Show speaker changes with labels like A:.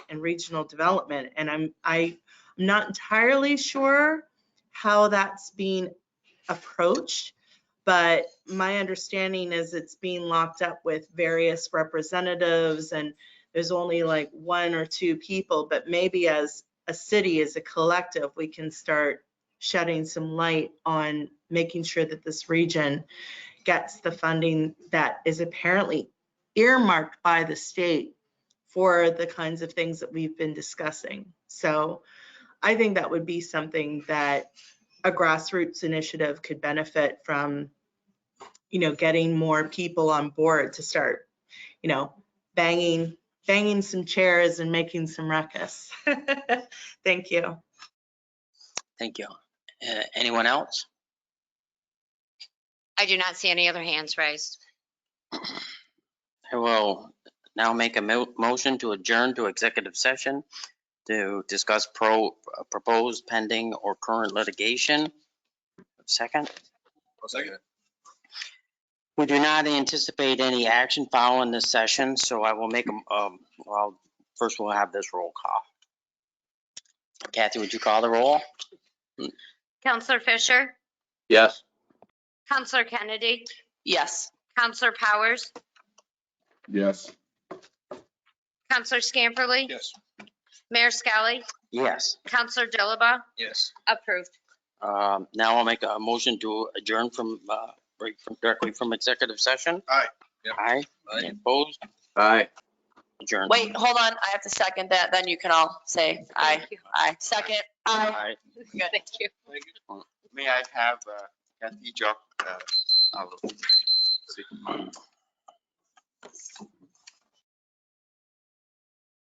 A: and regional development. And I'm, I, I'm not entirely sure how that's being approached. But my understanding is it's being locked up with various representatives and there's only like one or two people. But maybe as a city, as a collective, we can start shedding some light on making sure that this region gets the funding that is apparently earmarked by the state for the kinds of things that we've been discussing. So I think that would be something that a grassroots initiative could benefit from, you know, getting more people on board to start, you know, banging, banging some chairs and making some ruckus. Thank you.
B: Thank you. Uh, Anyone else?
C: I do not see any other hands raised.
B: I will now make a mo- motion to adjourn to executive session to discuss pro, proposed pending or current litigation. Second,
D: I'll second it.
B: we do not anticipate any action following this session, so I will make, a- um, well, first we'll have this roll call. Kathy, would you call the roll?
C: Counselor Fisher,
D: Yes.
C: Counselor Kennedy,
E: Yes.
C: Counselor Powers,
D: Yes.
C: Counselor Scamperly,
D: Yes.
C: Mayor Skelly,
B: Yes.
C: Counselor Dilaba,
D: Yes.
C: approved.
B: Um, Now I'll make a motion to adjourn from, uh, right from- directly from executive session.
D: Aye. Yep.
B: Aye. Any Opposed,
D: Aye.
B: adjourned.
E: Wait, hold on. I have to second that. Then you can all say aye, aye. Second,
B: Aye.
E: aye.
C: Thank you.
F: May I have uh, Kathy drop? uh, our-